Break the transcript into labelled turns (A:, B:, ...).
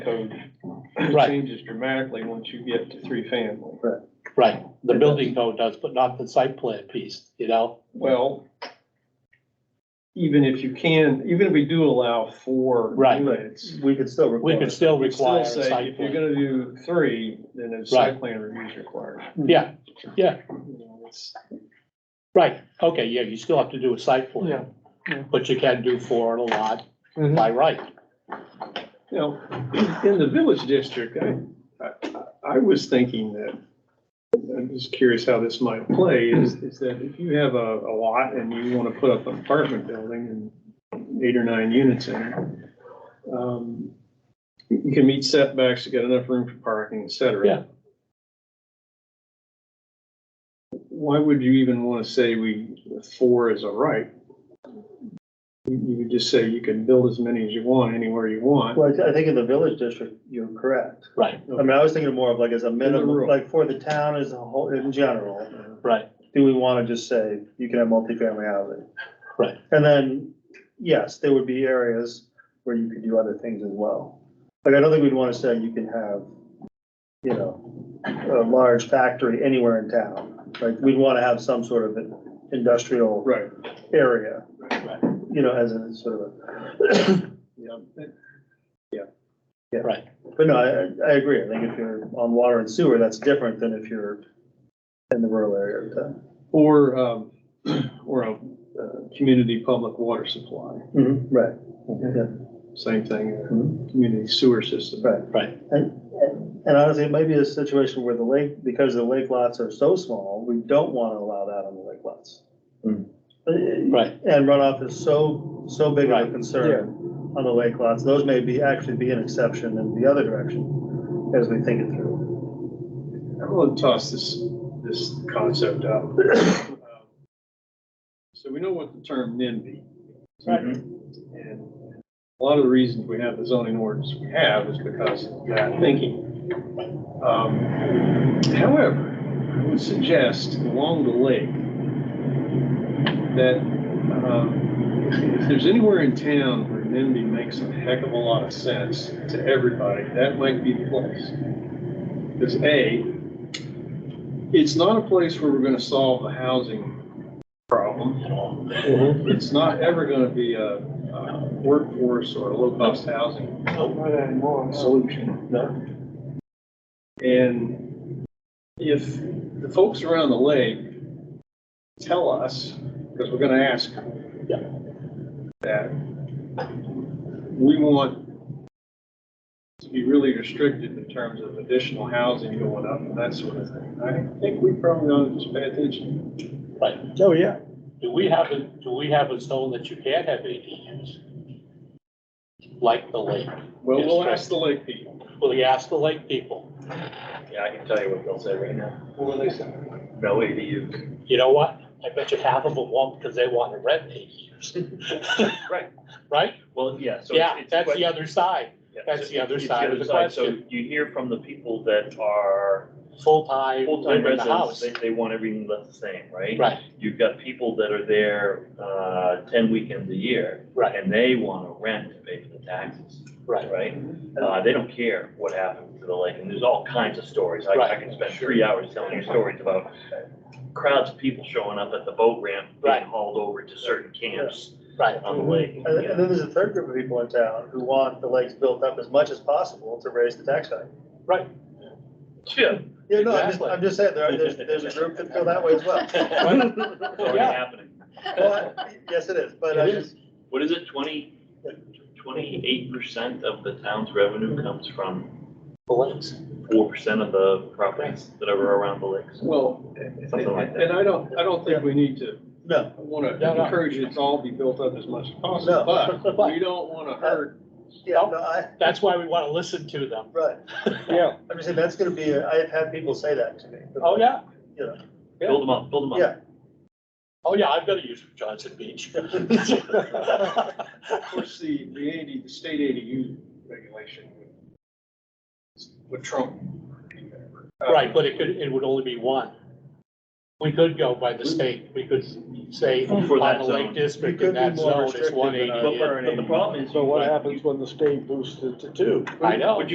A: code
B: Right.
A: changes dramatically once you get to three family.
B: Right, the building code does, but not the site plan piece, you know?
A: Well, even if you can, even if we do allow four
B: Right.
A: units,
C: We could still
B: We
C: require.
B: could still
A: we
B: require
A: still
B: a
A: say,
B: site
A: if you're
B: plan.
A: gonna do three, then a
B: Right.
A: site plan review is required.
B: Yeah,
A: You know, it's-
B: right, okay, yeah, you still have to do a site
D: Yeah,
B: plan.
D: yeah.
B: But you can do four on a lot
A: Mm-hmm.
B: by right.
A: You know, in the village district, I, I, I was thinking that, I'm just curious how this might play, is, is that if you have a, a lot and you wanna put up an apartment building and eight or nine units in it, um, you can meet setbacks, you got enough room for parking, et cetera.
B: Yeah.
A: Why would you even wanna say we, four is a right? You you could just say you can build as many as you want, anywhere you want.
C: Well, I thi- I think in the village district, you're correct.
B: Right,
C: I mean, I was thinking more of like as a minimum,
A: rural.
C: like for the town as a whole, in general,
B: right,
C: do we wanna just say you can have multifamily housing?
B: Right.
C: And then, yes, there would be areas where you could do other things as well. Like, I don't think we'd wanna say you can have, you know, a large factory anywhere in town. Like, we'd wanna have some sort of an industrial
A: Right.
C: area,
B: Right.
C: you know, as a sort of a,
A: Yeah,
B: right,
C: But no, I, I- I agree. I think if you're on water and sewer, that's different than if you're in the rural area of town.
A: or, um, or a, uh, community public water supply,
C: Right,
A: same thing,
C: Mhm.
A: uh, community sewer system.
C: right.
B: right,
C: And honestly, it might be a situation where the lake, because the lake lots are so small, we don't want to allow that on the lake lots.
D: Hmm.
C: Uh,
B: right,
C: And runoff is so, so big of
B: Right.
C: a concern on the lake lots. Those may be, actually be an exception in the other direction as we think it through.
A: I'm gonna toss this, this concept out. So we know what the term NIMBY. is.
B: Right.
A: And a lot of the reasons we have the zoning ordinance we have is because of that thinking. Um, However, I would suggest along the lake that um, if there's anywhere in town where NIMBY makes a heck of a lot of sense to everybody, that might be the place. Because A, it's not a place where we're gonna solve the housing problem. It's not ever gonna be a, a workforce or a low-cost housing solution.
B: No.
A: And if the folks around the lake tell us, because we're gonna ask them,
B: Yeah.
A: that we want to be really restricted in terms of additional housing going up and that sort of thing, I think we probably ought to just pay attention.
B: right.
C: Oh, yeah.
B: Do we have, a do we have a zone that you can't have ADUs? Like the lake?
A: Well,
B: Yes,
A: we'll
B: right.
A: ask the lake people.
B: Well, you ask the lake people,
D: Yeah, I can tell you what they'll say right now.
A: What will they say?
D: No ADU.
B: you know what? I bet you half of them won't because they want to rent ADUs.
D: Right.
B: Right?
D: Well, yeah, so.
B: Yeah,
D: it's- it's
B: that's
D: what-
B: the other side,
D: yeah,
B: that's
D: so
B: the other
D: it's
B: side of the
D: So
B: question.
D: you hear from the people that are
B: full-time,
D: full-time
B: live in the
D: residents,
B: house.
D: they, they want everything left the same, right?
B: Right,
D: You've got people that are there, uh, ten weekends a year.
B: Right.
D: And they want to rent to pay for the taxes,
B: right.
D: right? Uh, they don't care what happened to the lake, and there's all kinds of stories. I, I
B: Right.
D: can spend three hours telling you stories about crowds of people showing up at the boat ramp, being
B: Right.
D: hauled over to certain camps
B: Right,
D: on the lake.
C: And then- and then there's a third group of people in town who want the lakes built up as much as possible to raise the tax value.
D: Yeah.
C: Yeah, no, I'm just,
B: Exactly.
C: I'm just saying, there are, there's, there's a group that feel that way as well.
D: It's already
B: Yeah.
D: happening.
C: Well, I- Yes, it is, but
B: It
C: I
B: is.
C: just,
D: What is it, twenty, twenty-eight percent of the town's revenue comes from
B: the lakes.
D: four percent of the properties that are around the lakes?
A: Well,
D: Something like that.
A: and I don't, I don't think we need to
C: no,
A: I want
B: No,
A: to
B: no.
A: encourage it to all be built up as much as
C: No.
A: possible, but we don't want to hurt.
C: yeah,
D: Oh.
C: no, I,
B: That's why we want to listen to them.
C: right.
A: Yeah.
C: I'm just saying, that's gonna be, a- I have had people say that to me.
B: Oh, yeah,
C: You know,
D: Build them up, build them up.
C: yeah,
B: oh, yeah, I've got to use Johnson Beach.
D: Oh.
A: Of course, the, the eighty, the state ADU regulation would- would trump. Uh,
B: Right, but it could, it would only be one. We could go by the state, we could say
D: For
B: on
D: that
B: the Lake
D: zone.
C: It
B: District
C: could
B: in
C: be
B: that
C: more
B: zone, it's
C: restrictive
B: one
C: than
B: eighty.
C: our-
D: But, but the problem is.
E: So what
D: like,
E: happens when the state boosts it to two?
B: I know.
D: Would